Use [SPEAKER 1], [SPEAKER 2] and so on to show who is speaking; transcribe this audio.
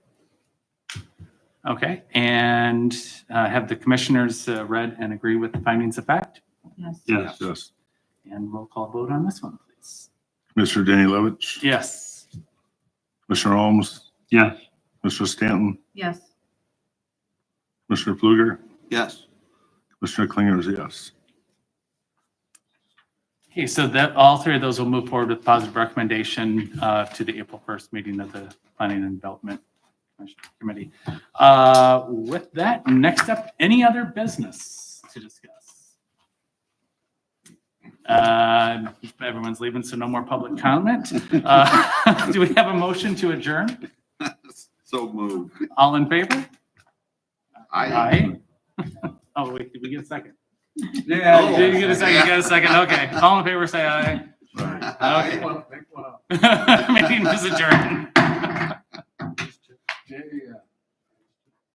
[SPEAKER 1] Okay, and uh, have the commissioners uh, read and agree with the findings of fact?
[SPEAKER 2] Yes.
[SPEAKER 3] Yes, yes.
[SPEAKER 1] And roll call vote on this one, please.
[SPEAKER 3] Commissioner Danny Levitch,
[SPEAKER 1] Yes.
[SPEAKER 3] Commissioner Holmes,
[SPEAKER 4] Yes.
[SPEAKER 3] Commissioner Stanton,
[SPEAKER 2] Yes.
[SPEAKER 3] Commissioner Fluger,
[SPEAKER 4] Yes.
[SPEAKER 3] Commissioner Klinger is a yes.
[SPEAKER 1] Okay, so that, all three of those will move forward with positive recommendation uh, to the April 1st meeting of the Planning and Development Committee. Uh, With that, next up, any other business to discuss? Uh, Everyone's leaving, so no more public comment. Uh, Do we have a motion to adjourn?
[SPEAKER 4] So moved.
[SPEAKER 1] All in favor?
[SPEAKER 4] I.
[SPEAKER 1] Aye. Oh, wait, did we get a second?
[SPEAKER 4] Yeah.
[SPEAKER 1] Did you get a second? You got a second? Okay. All in favor, say aye.
[SPEAKER 4] Aye.
[SPEAKER 1] Meeting is adjourned.
[SPEAKER 5] Jay, uh,